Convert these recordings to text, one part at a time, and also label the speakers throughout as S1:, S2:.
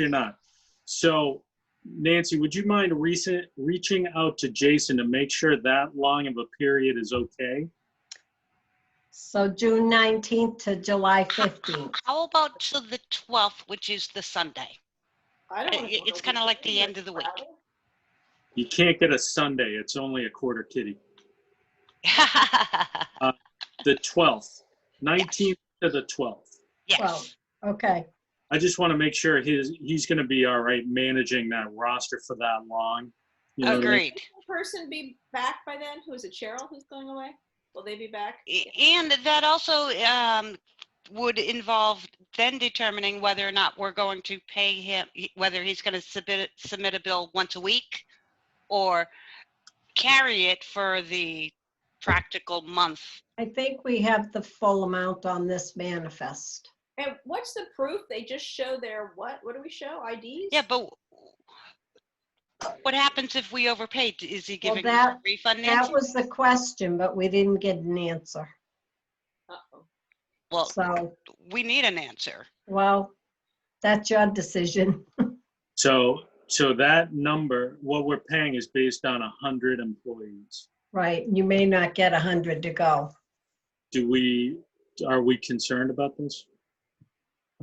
S1: You're not. So Nancy, would you mind recent, reaching out to Jason to make sure that long of a period is okay?
S2: So June 19th to July 15th.
S3: How about to the 12th, which is the Sunday?
S4: I don't. wanna
S3: It-
S4: go to
S3: it's kinda like the
S4: Disney
S3: end of the week.
S4: travel.
S1: You can't get a Sunday. It's only a quarter kitty. The 12th, 19th to the 12th.
S2: Well,
S3: Yes,
S2: Okay,
S1: I just want to make sure his, he's going to be all right managing that roster for that long. You know what I mean?
S3: agreed.
S4: Will the Person be back by then? Who is it? Cheryl who's going away? Will they be back?
S3: A- And that also um, would involve then determining whether or not we're going to pay him, whether he's going to submit, submit a bill once a week or carry it for the practical month.
S2: I think we have the full amount on this manifest.
S4: And what's the proof? They just show their what? What do we show? IDs?
S3: Yeah, but what happens if we overpaid? Is he
S2: Well,
S3: giving us a
S2: that-
S3: refund?
S2: That
S3: Nancy?
S2: was the question, but we didn't get an answer.
S4: Uh-oh.
S3: Well,
S2: So,
S3: we need an answer.
S2: well, that's your decision.
S1: So, so that number, what we're paying is based on 100 employees.
S2: Right, you may not get 100 to go.
S1: Do we, are we concerned about this?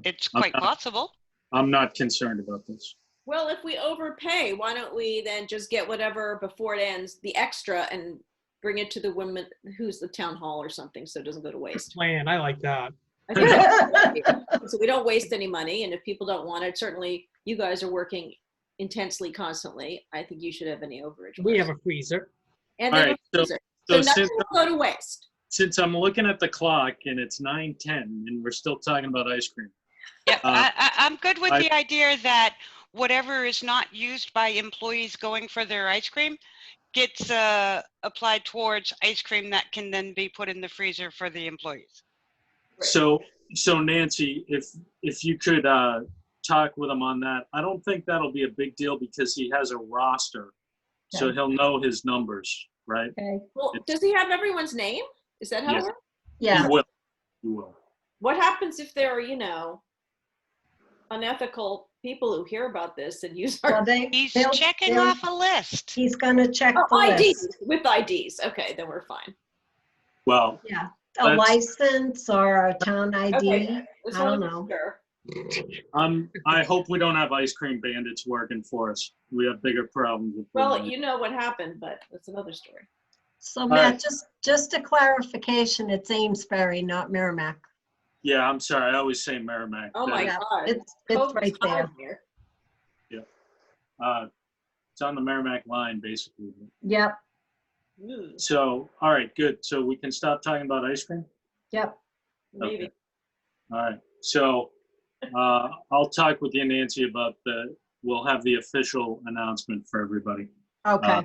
S3: It's
S1: Okay.
S3: quite possible.
S1: I'm not concerned about this.
S4: Well, if we overpay, why don't we then just get whatever before it ends, the extra, and bring it to the women who's the town hall or something, so it doesn't go to waste.
S5: plan. I like that.
S4: I think that's- so we don't waste any money, and if people don't want it, certainly you guys are working intensely, constantly. I think you should have any overage.
S5: We have a freezer.
S4: and
S1: All
S4: then
S1: right,
S4: we'll use it. so
S1: So
S4: nothing
S1: since,
S4: will go to waste.
S1: since I'm looking at the clock and it's 9:10 and we're still talking about ice cream.
S3: Yeah,
S1: Uh,
S3: I, I, I'm good with
S1: I-
S3: the idea that whatever is not used by employees going for their ice cream gets uh, applied towards ice cream that can then be put in the freezer for the employees.
S4: Right.
S1: So, so Nancy, if, if you could, uh, talk with him on that, I don't think that'll be a big deal because he has a roster. So
S2: Okay.
S1: he'll know his numbers, right?
S2: Okay,
S4: Well,
S1: It's-
S4: does he have everyone's name? Is that how
S1: Yes.
S4: it works?
S2: yeah,
S1: He will. He will.
S4: What happens if there are, you know, unethical people who hear about this and use
S2: well,
S4: our
S2: they,
S3: He's
S2: they'll-
S3: checking
S2: they'll-
S3: off a list.
S2: He's gonna check the
S4: oh, IDs
S2: list.
S4: with IDs? Okay, then we're fine.
S1: Well,
S2: Yeah, a
S1: That's-
S2: license or a town ID.
S4: Okay, just
S2: I don't
S4: wanna be
S2: know.
S4: sure.
S1: um, I hope we don't have ice cream bandits working for us. We have bigger problems. with
S4: Well,
S2: Mm-hmm.
S1: them.
S4: you know what happened, but that's another story.
S2: So
S1: right.
S2: Matt, just, just a clarification, it's Amesbury, not Merrimack.
S1: Yeah, I'm sorry. I always say Merrimack.
S4: Oh my
S1: That-
S2: Yeah,
S4: God,
S2: It's, it's
S4: COVID's
S2: right there.
S4: hard here.
S1: uh, It's on the Merrimack line, basically.
S2: Yep,
S4: Hmm,
S1: So, all right, good. So we can stop talking about ice cream?
S2: yep.
S4: Maybe.
S1: All right, so uh, I'll talk with you, Nancy, about the, we'll have the official announcement for everybody.
S2: Okay,
S1: Uh,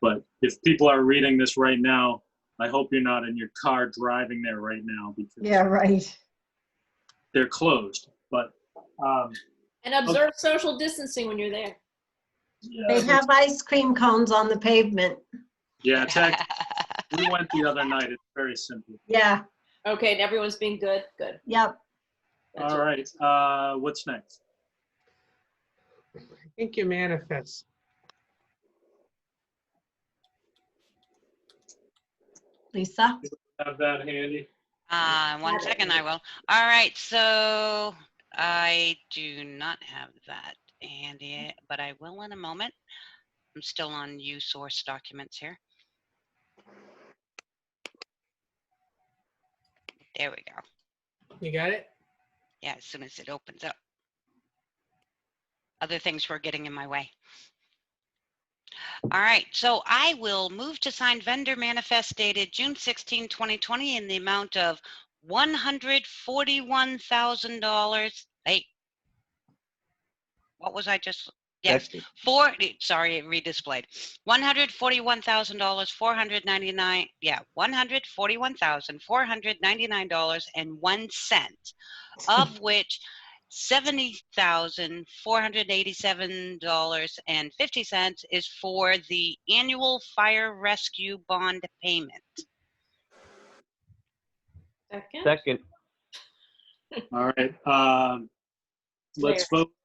S1: But if people are reading this right now, I hope you're not in your car driving there right now
S2: yeah,
S1: because
S2: right.
S1: they're closed, but. um,
S4: And observe social distancing when you're there.
S1: yeah,
S2: They have ice cream cones on the pavement.
S1: Yeah, it's act- we went the other night. It's very simple.
S2: Yeah,
S4: Okay, and everyone's being good, good.
S2: yep.
S4: That's
S1: All
S4: it.
S1: right, uh, what's next?
S5: I think your manifest.
S2: Lisa?
S1: Have that handy.
S3: Uh, one second, I will. All right, so I do not have that, Andy, but I will in a moment. I'm still on U source documents here. There we go.
S5: You got it?
S3: Yeah, as soon as it opens up. Other things were getting in my way. All right, so I will move to sign vendor manifest dated June 16, 2020 in the amount of $141,000. Hey. What was I just? Yes,
S6: That's-
S3: four, sorry, it redisplayed. $141,000, 499, yeah, $141,499.01 of which seventy thousand four hundred eighty-seven dollars and fifty cents is for the annual fire rescue bond payment.
S4: Second,
S6: Second,
S1: All right, um, let's vote